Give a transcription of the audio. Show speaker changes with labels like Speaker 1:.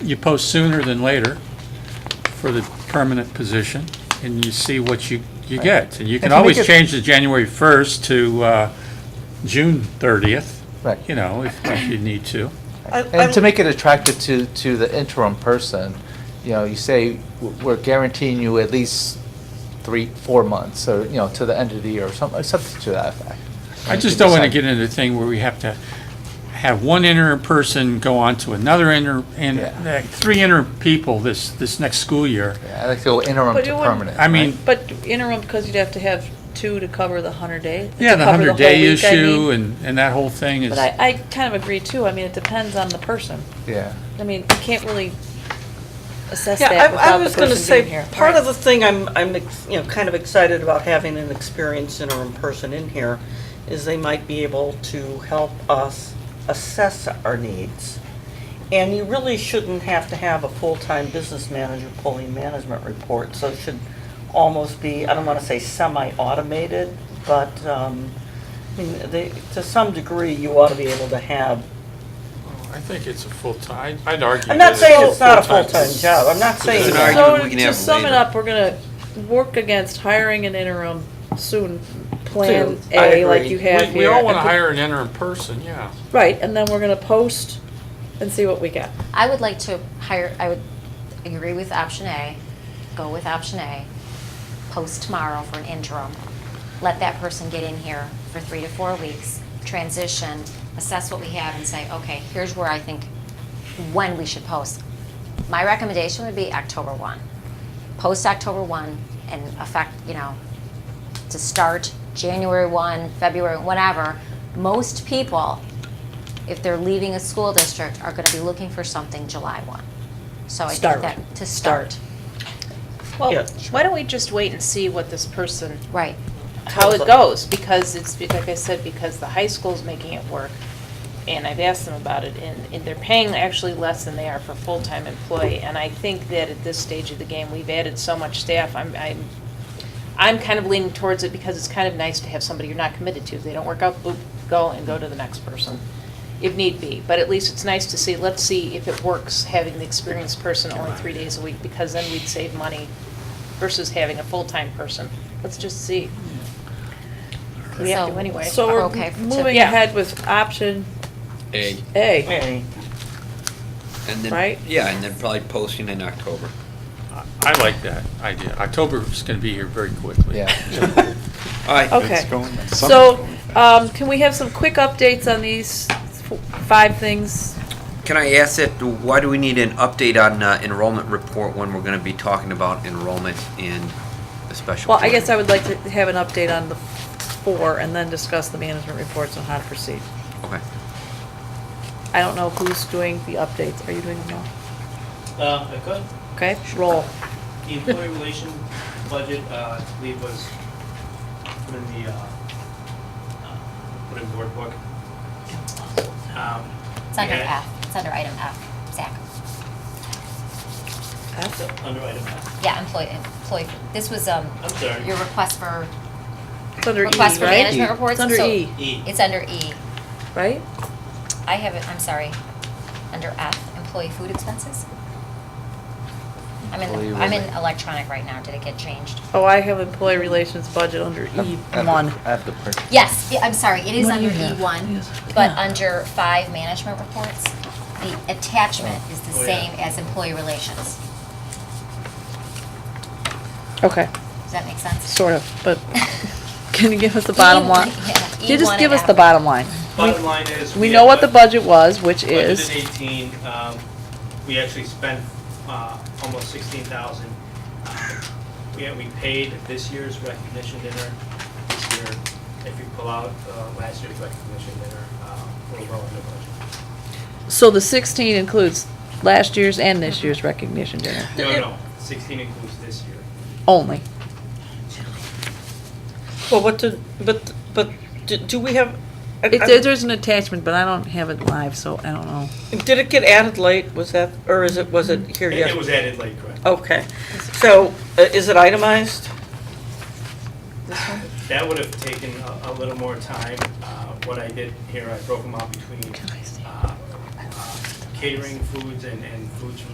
Speaker 1: you post sooner than later for the permanent position, and you see what you, you get. And you can
Speaker 2: And to make
Speaker 1: always
Speaker 2: it-
Speaker 1: change the January 1st to uh, June 30th,
Speaker 2: Right.
Speaker 1: you know, if if you need to.
Speaker 3: I-
Speaker 2: And to
Speaker 3: I-
Speaker 2: make it attractive to, to the interim person, you know, you say, "We're- we're guaranteeing you at least three, four months, or, you know, to the end of the year, or something, something to that effect.
Speaker 1: I just don't want to
Speaker 2: Decide.
Speaker 1: get into the thing where we have to have one interim person go on to another interim, and
Speaker 2: Yeah.
Speaker 1: uh, three interim people this, this next school year.
Speaker 2: Yeah, I like to go interim
Speaker 3: But
Speaker 2: to
Speaker 3: it wouldn't-
Speaker 2: permanent.
Speaker 1: I mean,
Speaker 2: right?
Speaker 3: But interim, because you'd have to have two to cover the hundred day. to
Speaker 1: Yeah, the
Speaker 3: cover whole
Speaker 1: 100-day
Speaker 3: week, I mean.
Speaker 1: issue and, and that whole thing is,
Speaker 3: But I, I kind of agree too. I mean, it depends on the person.
Speaker 2: Yeah.
Speaker 3: I mean, you can't really assess
Speaker 4: Yeah,
Speaker 3: that
Speaker 4: I- I
Speaker 3: without the
Speaker 4: was going to
Speaker 3: person being
Speaker 4: say,
Speaker 3: here.
Speaker 4: part of the thing I'm, I'm, ex- you know, kind of excited about having an experienced interim person in here is they might be able to help us assess our needs. And you really shouldn't have to have a full-time business manager pulling management reports, so it should almost be, I don't want to say semi-automated, but, um, I mean, they, to some degree, you ought to be able to have
Speaker 1: I think it's a full-time, I'd argue.
Speaker 4: I'm not saying it's not a full-time job, I'm not saying.
Speaker 5: There's an
Speaker 4: it's not-
Speaker 3: So
Speaker 5: argument we can
Speaker 3: to
Speaker 5: have
Speaker 3: sum it
Speaker 5: later.
Speaker 3: up, we're going to work against hiring an interim soon, plan
Speaker 4: Soon. I
Speaker 3: A like
Speaker 4: agree.
Speaker 3: you have here. and put-
Speaker 1: an interim person, yeah.
Speaker 3: Right, and then we're going to post and see what we get.
Speaker 6: I would like to hire, I would agree with option A, go with option A, post tomorrow for an interim, let that person get in here for three to four weeks, transition, assess what we have and say, okay, here's where I think, when we should post. My recommendation would be October 1. Post October 1 and affect, you know, to start January 1, February, whatever. Most people if they're leaving a school district, are going to be looking for something July 1. So I
Speaker 3: Start.
Speaker 6: think that, to start,
Speaker 4: Yeah.
Speaker 7: Well, why don't we just wait and see what this person,
Speaker 6: right.
Speaker 7: how
Speaker 4: Sounds like-
Speaker 7: it goes? Because it's, be- like I said, because the high school's making it work, and I've asked them about it, and, and they're paying actually less than they are for full-time employee. And I think that at this stage of the game, we've added so much staff, I'm, I'm, I'm kind of leaning towards it because it's kind of nice to have somebody you're not committed to. If they don't work out, boop, go and go to the next person, if need be. But at least it's nice to see, let's see if it works, having the experienced person only three days a week, because then we'd save money versus having a full-time person. Let's just see. We have to
Speaker 6: So-
Speaker 7: anyway.
Speaker 3: So
Speaker 6: Are
Speaker 3: we're
Speaker 6: okay to-
Speaker 3: moving
Speaker 7: Yeah.
Speaker 3: ahead with option
Speaker 5: A,
Speaker 3: A.
Speaker 4: Hey.
Speaker 5: and
Speaker 3: Right?
Speaker 5: then, yeah, and then probably posting in October.
Speaker 1: I like that idea. October is going to be here very quickly.
Speaker 2: Yeah.
Speaker 5: All right.
Speaker 3: Okay.
Speaker 5: It's going-
Speaker 3: So, um, can we have some quick updates on these f- five things?
Speaker 5: Can I ask that, why do we need an update on uh, enrollment report when we're gonna be talking about enrollment in the special?
Speaker 3: Well, I guess I
Speaker 5: program?
Speaker 3: would like to have an update on the four and then discuss the management reports on how to proceed.
Speaker 5: Okay.
Speaker 3: I don't know who's doing the updates. Are you doing them all?
Speaker 8: Uh, I could.
Speaker 3: Okay, roll.
Speaker 8: The employee relation budget, uh, I believe was put in the, uh, uh, put in board book. Um,
Speaker 6: It's under
Speaker 8: yeah,
Speaker 6: F, it's under item F, Zach.
Speaker 8: so, Under item F,
Speaker 6: Yeah, employee, employee, this was um,
Speaker 8: I'm sorry.
Speaker 6: your request for,
Speaker 3: It's under E, right?
Speaker 6: request for management reports.
Speaker 3: It's under
Speaker 6: so
Speaker 3: E,
Speaker 8: E.
Speaker 6: It's under E.
Speaker 3: right?
Speaker 6: I have it, I'm sorry, under F, employee food expenses? I'm in,
Speaker 2: Employee
Speaker 6: the- I'm in
Speaker 2: related.
Speaker 6: electronic right now, did it get changed?
Speaker 3: Oh, I have employee relations budget under E one.
Speaker 2: I have the person.
Speaker 6: Yes, yeah, I'm sorry, it is
Speaker 3: What do
Speaker 6: under
Speaker 3: you have?
Speaker 6: E1, but under five management reports, the attachment is the
Speaker 8: Oh, yeah.
Speaker 6: same as employee relations.
Speaker 3: Okay,
Speaker 6: Does that make sense?
Speaker 3: sort of, but can you give us the bottom line?
Speaker 6: Yeah,
Speaker 3: Can You just
Speaker 6: E1
Speaker 3: give
Speaker 6: and
Speaker 3: us the
Speaker 6: F.
Speaker 3: bottom line.
Speaker 8: Bottom line is.
Speaker 3: We know what the
Speaker 8: have
Speaker 3: budget was, which is.
Speaker 8: Budgeted eighteen, um, we actually spent, uh, almost sixteen thousand. We, we paid this year's recognition dinner, this year, if you pull out, uh, last year's recognition dinner, uh, we're well under budget.
Speaker 3: So the 16 includes last year's and this year's recognition dinner
Speaker 8: No, no, sixteen includes this year.
Speaker 3: only.
Speaker 4: Well, what did, but, but, do- do we have, I-
Speaker 3: It,
Speaker 4: I-
Speaker 3: there's an attachment, but I don't have it live, so I don't know.
Speaker 4: did it get added late, was that, or is it, was it here Oh.
Speaker 8: It-
Speaker 4: yet?
Speaker 8: It was added late, correct?
Speaker 4: Okay, so, uh, is it itemized?
Speaker 8: That would have taken a, a little more time. Uh, What I did here, I broke them out between uh, uh, catering foods and, and foods from